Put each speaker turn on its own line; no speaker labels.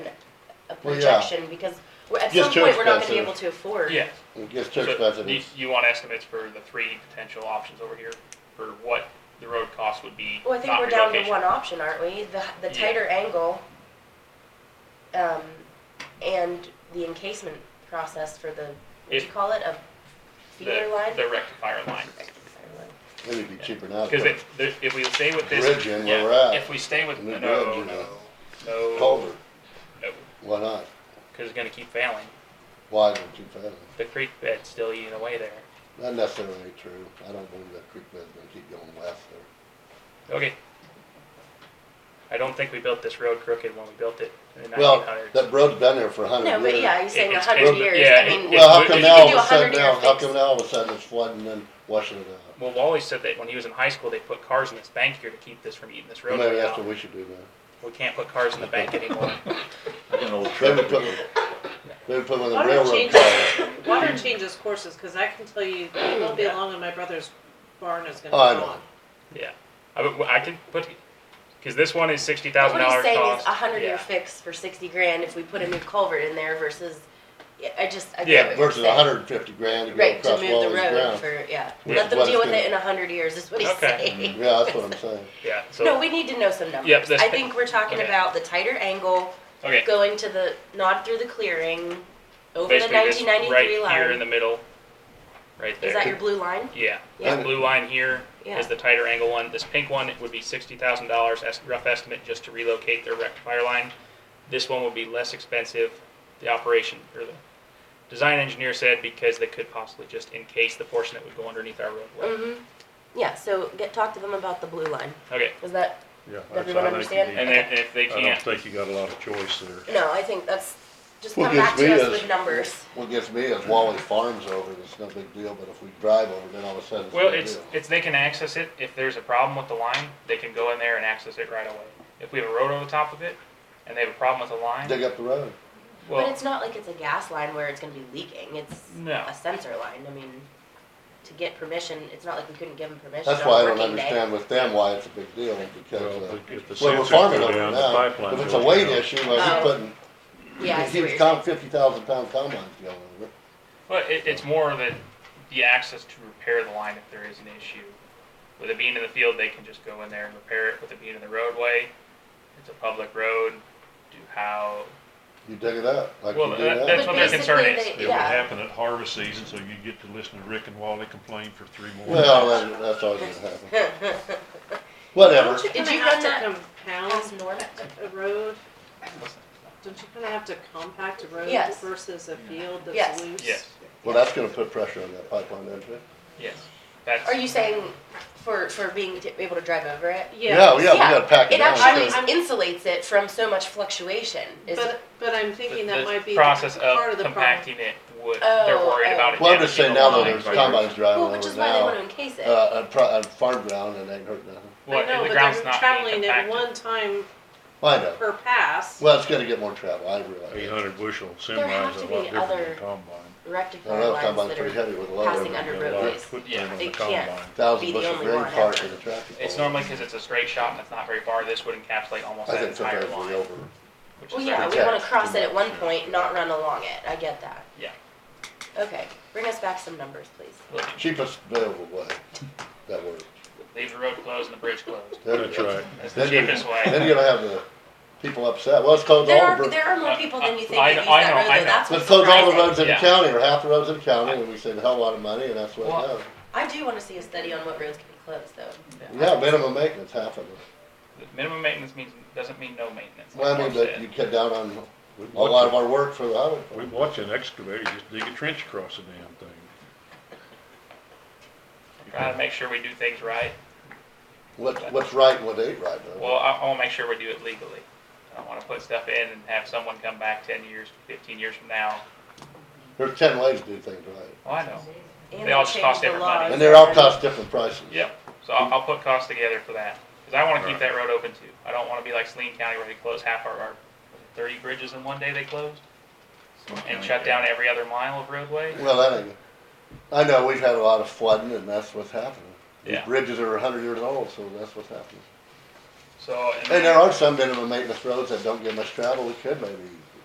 Well, yeah.
projection, because we're- at
Gets
some
too
point, we're not gonna be
expensive.
able to afford.
Yeah.
It gets too
So
expensive.
You, you want estimates for the three potential options over here for what the road cost would be,
Well, I think
not
we're down to
relocation.
one option, aren't we? The, the
Yeah.
tighter angle, um, and the encasement process for the, what do you
If-
call it, a
The-
feeder line?
The rectifier line.
It'd be cheaper now.
Because if, if we stay with this.
Bridge in where
yeah,
we're at.
If we stay with,
New
no,
bridge
no,
and a
no.
Culvert,
no,
why not?
Cause it's gonna keep failing.
Why is it too fast?
The creek bed's still eating away there.
Not necessarily true. I don't believe that creek bed's gonna keep going west there.
Okay. I don't think we built this road crooked when we built it in the nineteen
Well,
hundreds.
that road's been there for a hundred
No,
years.
but yeah, you're saying a
it's-
hundred
it's-
years,
yeah,
I
it-
mean,
it's-
Well, how come
you
now
could
all
do a
of a sudden
hundred year
now, how
fix.
come now all of a sudden it's flooding and washing it out?
Well, Wally said that when he was in high school, they put cars in this bank here to keep this from eating this
Well,
roadway
Maybe that's
out.
what we should do now.
We can't put cars in the bank anymore.
I got an old
They would
truck.
put, they would put one of the
Water
railroad
changes-
cars.
Water changes courses, cause I can tell you, it won't be long and my brother's barn is
Oh, I
gonna be
know.
gone.
Yeah, I, would- I can put, because this one is sixty
But
thousand
What
dollar
he's
cost.
saying is a hundred year
Yeah.
fix for sixty grand if we put a new culvert in there versus, yeah, I just, I
Yeah,
get what you're
Versus
saying.
hundred and fifty grand to go
Right, to
across
move the
Wally's
road
ground.
for, yeah,
Which
let
is
them
what
deal
it's
with it
gonna-
in a hundred years, is what he's
Okay.
saying.
Yeah, that's what I'm saying.
Yeah,
No,
so,
we need to know some numbers.
Yep, that's-
I think we're talking
okay.
about the tighter angle,
okay,
going to the, not through the clearing, over the
basically this
nineteen ninety-three
right here in
line.
the middle, right there.
Is that your blue line?
Yeah,
Yeah.
the blue line here
Yeah.
is the tighter angle one. This pink one would be sixty thousand dollars, rough estimate, just to relocate their rectifier line. This one would be less expensive, the operation, or the design engineer said, because they could possibly just encase the portion that would go underneath our roadway.
hmm yeah, so get, talk to them about the blue line,
Okay,
is that,
Yeah.
Does
that's-
everyone
I think you
understand?
need-
and then if they
I don't
can't,
think you got a lot of choice there.
no, I think that's, just
Well,
come back
gives me
to us
is-
with numbers.
What gets me is Wally Farms over, it's no big deal, but if we drive over, then all of a sudden it's a
well,
big
it's,
deal.
it's, they can access it. If there's a problem with the line, they can go in there and access it right away. If we have a road over the top of it, and they have a problem with the line,
Dig up the road.
But
well,
it's not like it's a gas line where it's gonna be leaking, it's
No.
a sensor line, I mean, to get permission, it's not like we couldn't give them permission
That's
on a
why I don't
working day.
understand with them why it's a big deal, because,
Well,
uh,
if the
well, we're
sensors
farming
go
over
down, the
now,
pipeline
if it's a
goes
weight
down.
issue, well,
Oh.
he's putting,
Yeah, I see
he
what
was
you're
counting
saying.
fifty thousand pound combines going over. it.
Well, it, it's more that the access to repair the line if there is an issue. With it being in the field, they can just go in there and repair it. With it being in the roadway, it's a public road. Do how?
You dig it up, like you
Well,
do
that-
now.
that's what their concern
But
is.
basically
It
they-
would
Yeah,
happen at harvest season, so you get to listen to Rick and Wally complain for three more.
Well, that- that's always gonna happen. Whatever.
Don't you
Did
kinda
you run
have to compound
As north.
a road? Don't you kinda have to compact a road
Yes.
versus a field
Yes.
that's loose?
Yes,
Well, that's gonna put pressure on that pipeline, isn't it?
yes. That's
Are you saying for, for being t- able to drive over it?
Yeah,
Yeah,
yeah, we gotta pack it
It
down.
actually
too.
I'm-
insulates it from so much fluctuation. Is it,
but, but I'm
the,
thinking that
the
might be
process
part
of
of the problem.
compacting it. Would they're
Oh,
worried
oh.
about it?
Well, I'm just saying
damaging the
now that
line.
there's combines driving
well, which is
over
why they want to
now,
encase
uh,
it.
on pro- on farm ground, it ain't hurt nothing.
Well,
I know,
the
but
ground's
they're
not being
traveling at
compacted.
one time
Well, I know.
per pass.
Well, it's gonna get more travel, I
Eight
realize.
hundred bushel
There have
semi is
to
a
be
lot different
other-
than a combine.
I
Rectifier
don't know,
lines
combine's
that
pretty
are
heavy with a lot of.
passing
them.
under
You got a lot of
roadways.
footprint
Yeah.
on
They
the
can't.
combine.
Be
thousand
the
bushel
only
green
one
park
ever.
in a traffic.
It's
pole.
normally because it's a straight shot and it's not very far. This would encapsulate almost
I
that
think
entire
sometimes
line,
we over,
which
Well,
is
yeah,
their-
we
protect
want to cross
too
it at
much.
one point, not run along it. I get that.
Yeah.
Okay, bring us back some numbers, please.
Look,
cheapest available way, that works.
Leave the road closed and the bridge closed.
Then-
That's right.
That's the
Then you're,
cheapest way.
then you're gonna have the people upset, well, let's close
There
all
are,
the, bro-
there are more
Uh,
people than you think
I-
that use
I
that
know,
road,
I
though.
know.
That's
let's
what's
close all the
surprising.
roads in the
Yeah.
county, or half the roads in the county, and we save a hell of a lot of money, and that's what
Well-
it does.
I do want to see a study on what roads can be closed, though.
Yeah, minimum maintenance, half of it.
The Minimum maintenance means, doesn't mean no maintenance. like
Well, I mean,
Mark
but
said.
you cut down on
We'd
a lot of
watch,
our work for the highway.
a-
department.
we'd watch an excavator just dig a trench across the damn thing.
Try to make sure we do things right.
What, what's right and what ain't right, though.
Well, I, I wanna make sure we do it legally. I don't wanna put stuff in and have someone come back ten years, fifteen years from now.
There's ten ways to do things right,
Oh, I know.
And
They
they
all just
change
cost
the
different money.
laws.
and they're all cost different prices.
Yep. So I'll, I'll put costs together for that. Cause I wanna keep
Right.
that road open too. I don't wanna be like Saline County where they closed half our, our thirty bridges in one day they closed. And shut down every other mile of roadway.
Well, that ain't, I know, we've had a lot of flooding, and that's what's happening. These
Yeah.
bridges are a hundred years old, so that's what's happening.
So.
And there are some minimum maintenance roads that don't get much travel, we could maybe